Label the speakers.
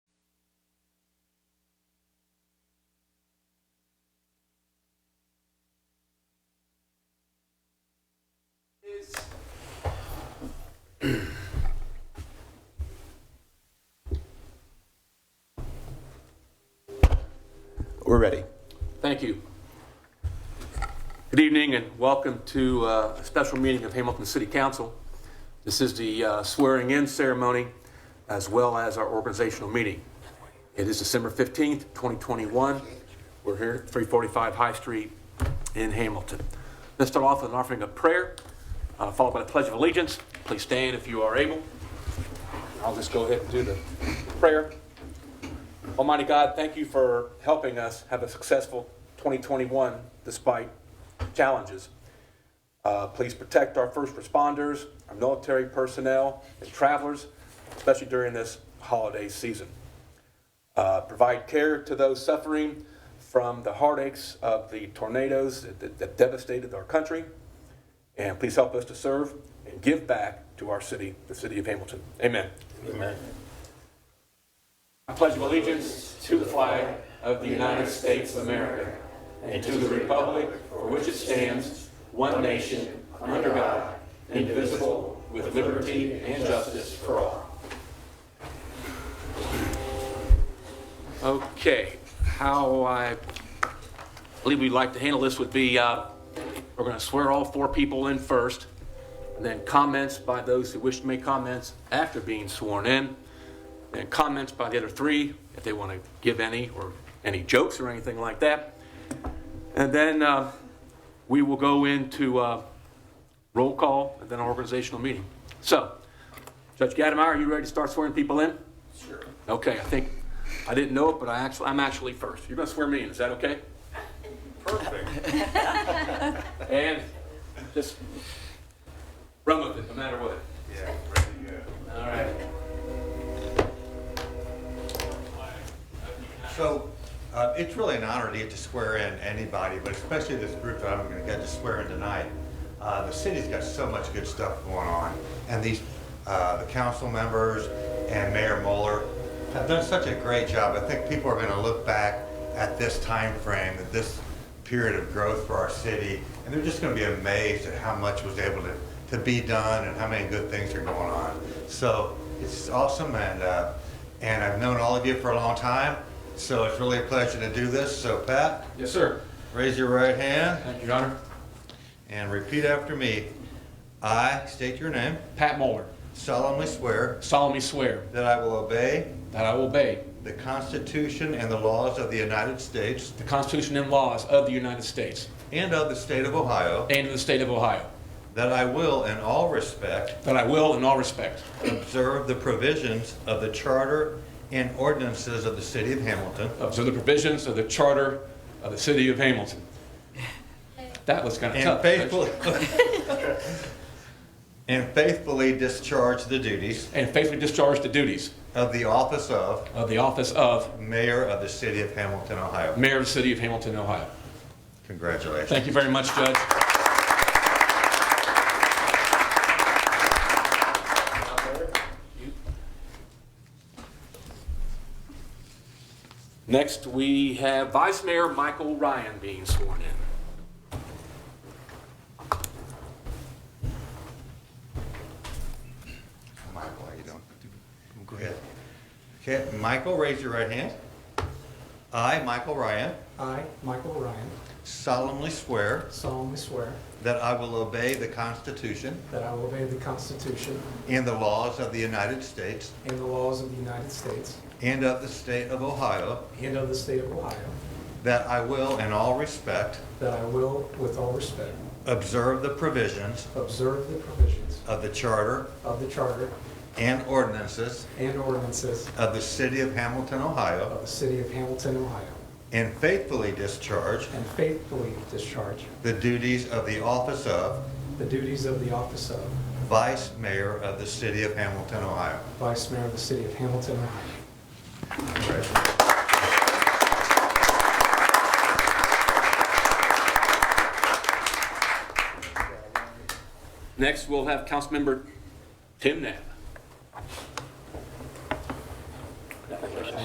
Speaker 1: We're ready.
Speaker 2: Thank you. Good evening and welcome to uh, a special meeting of Hamilton City Council. This is the swearing-in ceremony as well as our organizational meeting. It is December 15th, 2021. We're here at 345 High Street in Hamilton. Let's start off with an offering of prayer, uh, followed by the Pledge of Allegiance. Please stand if you are able. I'll just go ahead and do the prayer. Almighty God, thank you for helping us have a successful 2021 despite challenges. Uh, please protect our first responders, our military personnel, and travelers, especially during this holiday season. Uh, provide care to those suffering from the heartaches of the tornadoes that- that, that devastated our country. And please help us to serve and give back to our city, the city of Hamilton. Amen. I pledge allegiance to the flag of the United States of America and to the republic for which it stands, one nation, under God, indivisible, with liberty and justice for all. Okay, how I believe we'd like to handle this would be, uh, we're going to swear all four people in first, and then comments by those who wish to make comments after being sworn in and comments by the other three if they want to give any or any jokes or anything like that. And then uh, we will go into uh, roll call and then our organizational meeting. So, Judge Gademeier, are you ready to start swearing people in? Sure. Okay, I think I didn't know it, but I actually I'm actually first. You're going to swear me in. Is that okay? Perfect. and just run with it, no matter what.
Speaker 3: Yeah, ready to
Speaker 2: All right.
Speaker 3: go. So, uh, it's really an honor to get to swear in anybody, but especially this group that I'm gonna get to swear in tonight. Uh, the city's got so much good stuff going on, and these, uh, the council members and Mayor Mueller have done such a great job. I think people are gonna look back at this time frame, at this period of growth for our city, and they're just gonna be amazed at how much was able to, to be done and how many good things are going on. So, it's awesome, and, uh, and I've known all of you for a long time, so it's really a pleasure to do this. So Pat,
Speaker 2: Yes, sir.
Speaker 3: raise your right hand
Speaker 2: Thank you, Your Honor.
Speaker 3: and repeat after me. I state your name,
Speaker 2: Pat Mueller,
Speaker 3: solemnly swear
Speaker 2: solemnly swear
Speaker 3: that I will obey
Speaker 2: that I will obey
Speaker 3: the Constitution and the laws of the United States
Speaker 2: the Constitution and laws of the United States
Speaker 3: and of the state of Ohio,
Speaker 2: and of the state of Ohio,
Speaker 3: that I will in all respect
Speaker 2: that I will, in all respects,
Speaker 3: observe the provisions of the charter and ordinances of the city of Hamilton,
Speaker 2: observe the provisions of the charter of the city of Hamilton. That was kind of
Speaker 3: and
Speaker 2: tough.
Speaker 3: faithfully, and faithfully discharge the duties
Speaker 2: And faithfully discharge the duties
Speaker 3: of the office of
Speaker 2: of the office of
Speaker 3: Mayor of the City of Hamilton, Ohio.
Speaker 2: Mayor of the City of Hamilton, Ohio.
Speaker 3: Congratulations.
Speaker 2: Thank you very much, Judge. Next, we have Vice Mayor Michael Ryan being sworn in.
Speaker 3: Michael, how you doing? Go ahead. Okay, Michael, raise your right hand. I, Michael Ryan,
Speaker 4: I, Michael Ryan,
Speaker 3: solemnly swear
Speaker 4: solemnly swear
Speaker 3: that I will obey the Constitution
Speaker 4: that I will obey the Constitution
Speaker 3: and the laws of the United States
Speaker 4: and the laws of the United States
Speaker 3: and of the state of Ohio,
Speaker 4: and of the state of Ohio,
Speaker 3: that I will in all respect
Speaker 4: that I will, with all respect,
Speaker 3: observe the provisions
Speaker 4: observe the provisions
Speaker 3: of the charter
Speaker 4: of the charter
Speaker 3: and ordinances
Speaker 4: and ordinances
Speaker 3: of the city of Hamilton, Ohio,
Speaker 4: of the city of Hamilton, Ohio,
Speaker 3: and faithfully discharge
Speaker 4: and faithfully discharge
Speaker 3: the duties of the office of
Speaker 4: the duties of the office of
Speaker 3: Vice Mayor of the City of Hamilton, Ohio.
Speaker 4: Vice Mayor of the city of Hamilton, Ohio.
Speaker 2: Next, we'll have Councilmember Tim Knapp.